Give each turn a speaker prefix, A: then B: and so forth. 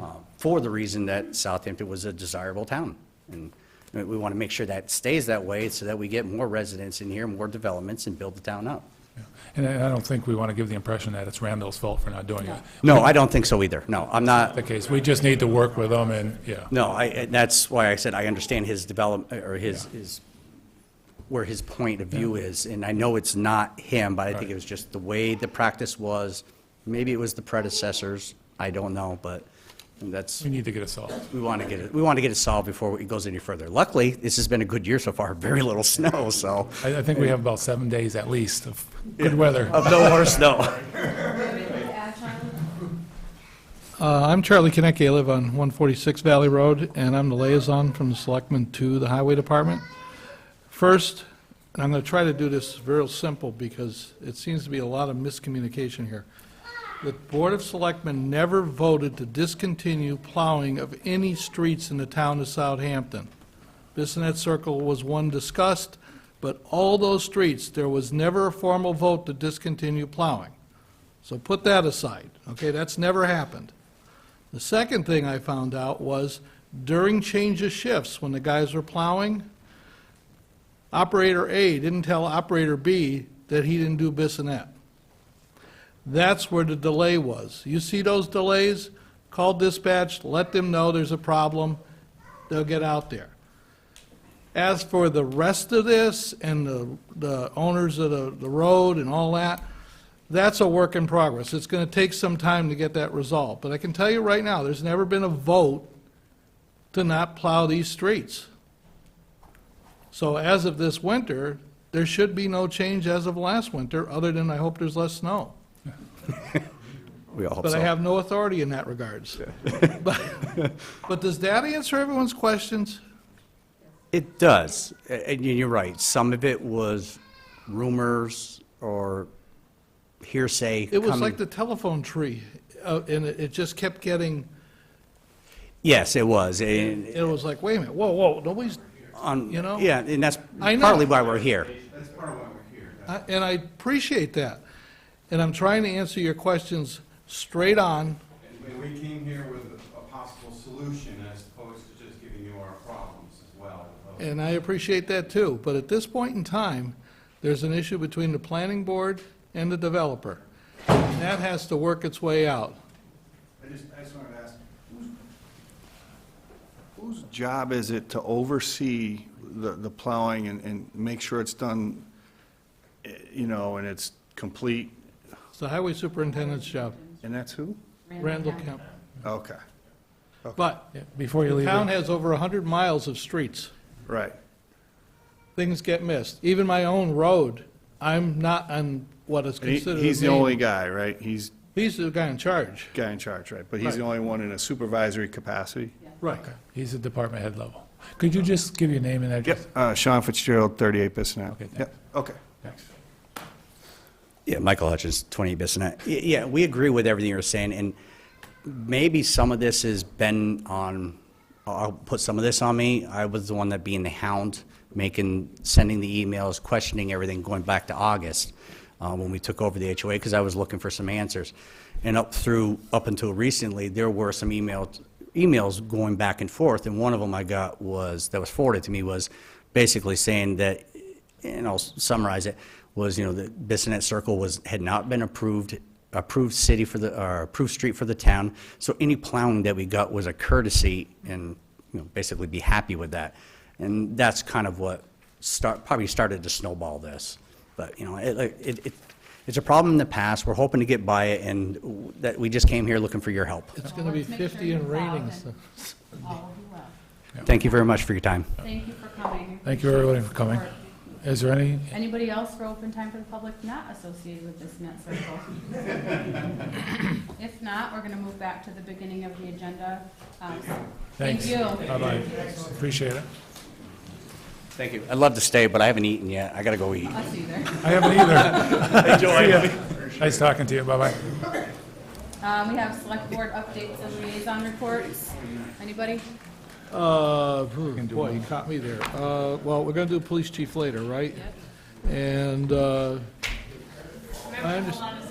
A: uh, for the reason that Southampton was a desirable town. And we want to make sure that stays that way so that we get more residents in here, more developments, and build the town up.
B: And I I don't think we want to give the impression that it's Randall's fault for not doing it.
A: No, I don't think so either. No, I'm not,
B: The case, we just need to work with them and, yeah.
A: no, I, and that's why I said I understand his development, or his, his, where his point of view is. And I know it's not him, but I think it was just the way the practice was. Maybe it was the predecessors, I don't know, but that's.
B: We need to get it solved.
A: We want to get it, we want to get it solved before it goes any further. Luckily, this has been a good year so far, very little snow, so,
B: I, I think we have about seven days at least of good weather.
A: of no more snow.
C: Uh, I'm Charlie Konecki. I live on 146 Valley Road, and I'm the liaison from the Selectmen to the Highway Department. First, and I'm going to try to do this real simple because it seems to be a lot of miscommunication here. The Board of Selectmen never voted to discontinue plowing of any streets in the town of Southampton. Bissonnet Circle was one discussed, but all those streets, there was never a formal vote to discontinue plowing. So put that aside, okay? That's never happened. The second thing I found out was during change of shifts, when the guys were plowing, operator A didn't tell operator B that he didn't do Bissonnet. That's where the delay was. You see those delays? Call dispatch, let them know there's a problem, they'll get out there. As for the rest of this and the, the owners of the, the road and all that, that's a work in progress. It's going to take some time to get that resolved. But I can tell you right now, there's never been a vote to not plow these streets. So as of this winter, there should be no change as of last winter, other than I hope there's less snow.
A: We all hope
C: But I
A: so.
C: have no authority in that regards. But but does that answer everyone's questions?
A: It does, A- and you're right, some of it was rumors or hearsay
C: It was like
A: coming.
C: the telephone tree, uh, and it it just kept getting,
A: Yes, it was, and,
C: it was like, wait a minute, whoa, whoa, nobody's,
A: on,
C: You know?
A: yeah, and that's
C: I know.
A: partly why we're here.
C: I- And I appreciate that. And I'm trying to answer your questions straight on.
D: And we came here with a possible solution as opposed to just giving you our problems as well.
C: And I appreciate that too, but at this point in time, there's an issue between the planning board and the developer. And that has to work its way out.
D: I just, I just wanted to ask, whose- whose job is it to oversee the, the plowing and, and make sure it's done, eh, you know, and it's complete?
C: It's the highway superintendent's job,
D: And that's who?
C: Randall Kemp.
D: Okay,
C: But
B: Yeah, Before you
C: the
B: leave,
C: town
B: it-
C: has over 100 miles of streets.
D: right.
C: Things get missed. Even my own road, I'm not on what is
D: And he-
C: considered a
D: He's the
C: main-
D: only guy, right? He's
C: He's the guy in charge.
D: guy in charge, right? But he's the
C: Right.
D: only one in a supervisory capacity?
C: Right.
B: he's at department head level. Could you just give your name and address?
D: Uh, Sean Fitzgerald, 38 Bissonnette.
B: Okay, thanks.
D: Yep, Okay.
B: Thanks.
A: Yeah, Michael Hutchins, 28 Bissonnette. Y- Yeah, we agree with everything you're saying, and maybe some of this has been on, I'll put some of this on me. I was the one that being the hound, making, sending the emails, questioning everything, going back to August, uh, when we took over the HOA, because I was looking for some answers. And up through, up until recently, there were some emails, emails going back and forth, and one of them I got was, that was forwarded to me, was basically saying that and I'll summarize it, was, you know, the Bissonnet Circle was, had not been approved, approved city for the, or approved street for the town, so any plowing that we got was a courtesy, and, you know, basically be happy with that. And that's kind of what start, probably started to snowball this. But, you know, it, like, it, it, it's a problem in the past, we're hoping to get by it, and w- that, we just came here looking for your help.
C: It's going to be 50 and raining, so.
E: All will be well.
A: Thank you very much for your time.
E: Thank you for coming.
B: Thank you, everybody, for coming. Is there any,
E: Anybody else for open time for the public not associated with this net circle? If not, we're gonna move back to the beginning of the agenda. Um,
B: Thanks.
E: Thank you.
B: bye-bye, appreciate it.
A: Thank you. I'd love to stay, but I haven't eaten yet, I gotta go eat.
E: Us either.
B: I haven't either. See ya. Nice talking to you, bye-bye.
E: Um, we have select board updates and liaison reports. Anybody?
C: Uh, boy, you caught me there. Uh, well, we're gonna do police chief later, right? And, uh, I understand.